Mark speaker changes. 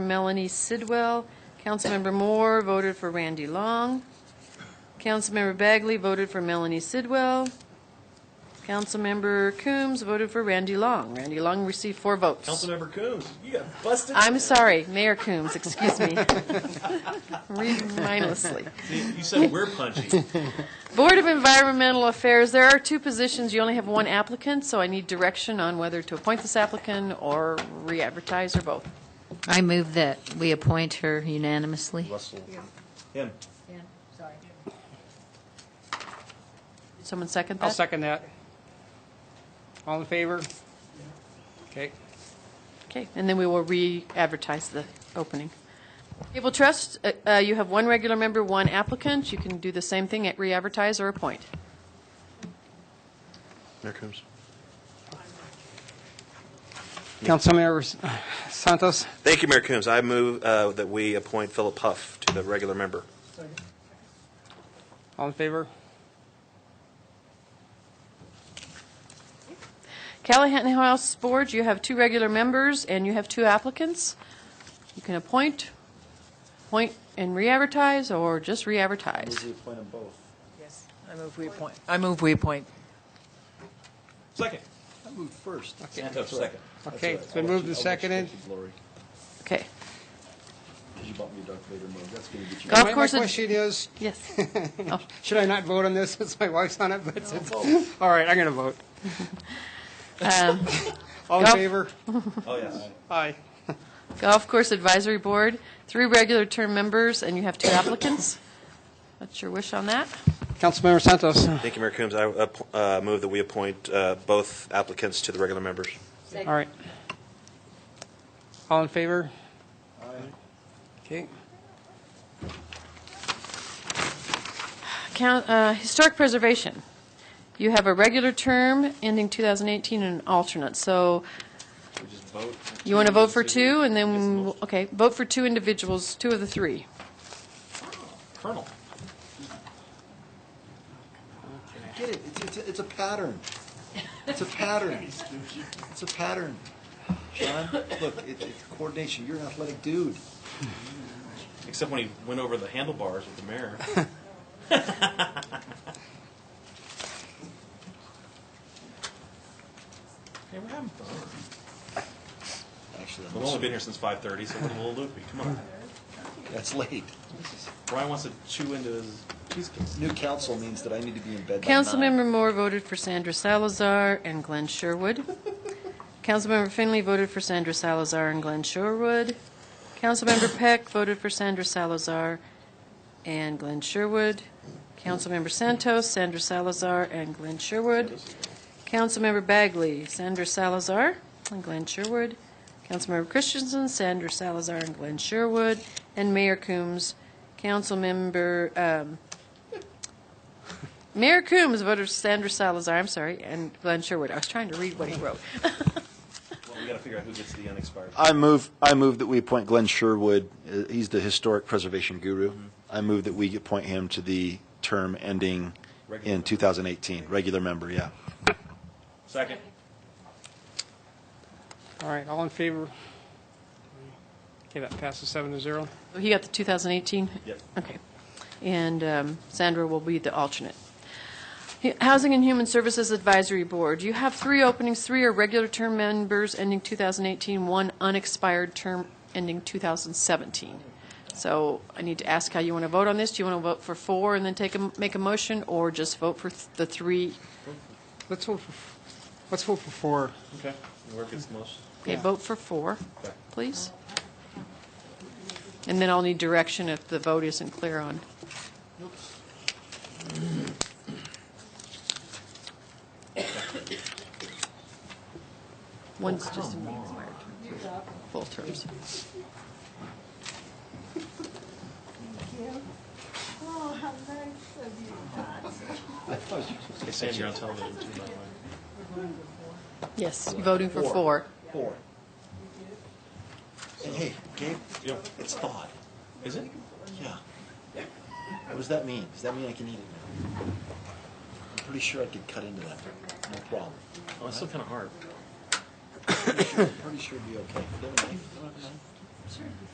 Speaker 1: Melanie Sidwell. Councilmember Moore voted for Randy Long. Councilmember Bagley voted for Melanie Sidwell. Councilmember Coombs voted for Randy Long. Randy Long received four votes.
Speaker 2: Councilmember Coombs, you got busted.
Speaker 1: I'm sorry, Mayor Coombs, excuse me. Read mindlessly.
Speaker 2: You said we're punchy.
Speaker 1: Board of Environmental Affairs, there are two positions, you only have one applicant, so I need direction on whether to appoint this applicant or re-advertise or both.
Speaker 3: I move that we appoint her unanimously.
Speaker 2: Him.
Speaker 1: Someone second that?
Speaker 4: I'll second that. All in favor? Okay.
Speaker 1: Okay, and then we will re-advertise the opening. Cable Trust, uh, uh, you have one regular member, one applicant, you can do the same thing, at re-advertise or appoint.
Speaker 5: Mayor Coombs.
Speaker 4: Councilmember Santos,
Speaker 5: Thank you, Mayor Coombs. I move uh, that we appoint Philip Huff to the regular member.
Speaker 4: all in favor?
Speaker 1: Callahan House Board, you have two regular members and you have two applicants. You can appoint, appoint and re-advertise, or just re-advertise.
Speaker 2: appoint them both.
Speaker 6: Yes, I move we appoint. I move we appoint.
Speaker 2: Second.
Speaker 7: I moved first.
Speaker 2: Santos, second.
Speaker 4: Okay, it's been moved and seconded.
Speaker 7: Lori,
Speaker 1: Okay.
Speaker 7: because you bought me a Darth Vader mug. That's going to get you.
Speaker 1: Golf
Speaker 4: My-
Speaker 1: course
Speaker 4: My
Speaker 1: ad-
Speaker 4: question is,
Speaker 1: Yes.
Speaker 4: should I not vote on this since my wife's on it? But it's- All right, I'm going to vote. All in
Speaker 1: Golf-
Speaker 4: favor?
Speaker 2: Oh, yes.
Speaker 4: Aye.
Speaker 1: Golf Course Advisory Board, three regular term members and you have two applicants. What's your wish on that?
Speaker 4: Councilmember Santos,
Speaker 5: Thank you, Mayor Coombs. I app- uh, move that we appoint uh, both applicants to the regular members.
Speaker 4: all right. All in favor? Okay.
Speaker 1: Coun- uh, Historic Preservation, you have a regular term ending 2018 and an alternate, so
Speaker 2: We just vote.
Speaker 1: you want to vote for two and then, okay, vote for two individuals, two of the three.
Speaker 2: Colonel.
Speaker 7: Get it? It's, it's, a- it's a pattern. It's a pattern. It's a pattern. John, look, it, it's coordination. You're an athletic dude.
Speaker 2: Except when he went over the handlebars with the mayor. Hey, we're having fun.
Speaker 7: Actually,
Speaker 2: We've only been here since 5:30, so we're a little loopy. Come on.
Speaker 7: that's late.
Speaker 2: Brian wants to chew into his cheesecake.
Speaker 7: New council means that I need to be in bed by nine.
Speaker 1: Councilmember Moore voted for Sandra Salazar and Glenn Sherwood. Councilmember Finley voted for Sandra Salazar and Glenn Sherwood. Councilmember Peck voted for Sandra Salazar and Glenn Sherwood. Councilmember Santos, Sandra Salazar, and Glenn Sherwood. Councilmember Bagley, Sandra Salazar and Glenn Sherwood. Councilmember Christensen, Sandra Salazar and Glenn Sherwood. And Mayor Coombs, Councilmember, um, Mayor Coombs voted for Sandra Salazar, I'm sorry, and Glenn Sherwood. I was trying to read what he wrote.
Speaker 2: Well, we got to figure out who gets the unexpired.
Speaker 8: I move, I move that we appoint Glenn Sherwood, uh, he's the historic preservation guru.
Speaker 7: Mm-hmm.
Speaker 8: I move that we appoint him to the term ending
Speaker 2: Regular.
Speaker 8: in 2018, regular member, yeah.
Speaker 2: Second.
Speaker 4: All right, all in favor? Okay, that passes seven to zero.
Speaker 1: He got the 2018?
Speaker 2: Yep.
Speaker 1: Okay. And um, Sandra will be the alternate. H- Housing and Human Services Advisory Board, you have three openings, three are regular term members ending 2018, one unexpired term ending 2017. So I need to ask how you want to vote on this. Do you want to vote for four and then take a, m- make a motion, or just vote for th- the three?
Speaker 4: Let's vote for, let's vote for four.
Speaker 2: Okay. Whoever gets the most.
Speaker 1: Okay, vote for four, please. And then I'll need direction if the vote isn't clear on. One's just an expired term, full terms.
Speaker 2: Hey, Sandy, you're on television too, by the way.
Speaker 1: Yes, you're voting for four.
Speaker 7: Four. Hey, hey, Gabe,
Speaker 2: Yeah.
Speaker 7: it's thawed.
Speaker 2: Is it?
Speaker 7: Yeah. What does that mean? Does that mean I can eat it now? I'm pretty sure I could cut into that. No problem.
Speaker 2: Oh, it's still kind of hard.
Speaker 7: I'm pretty sure it'd be okay. Do you have a knife? Do you have a knife?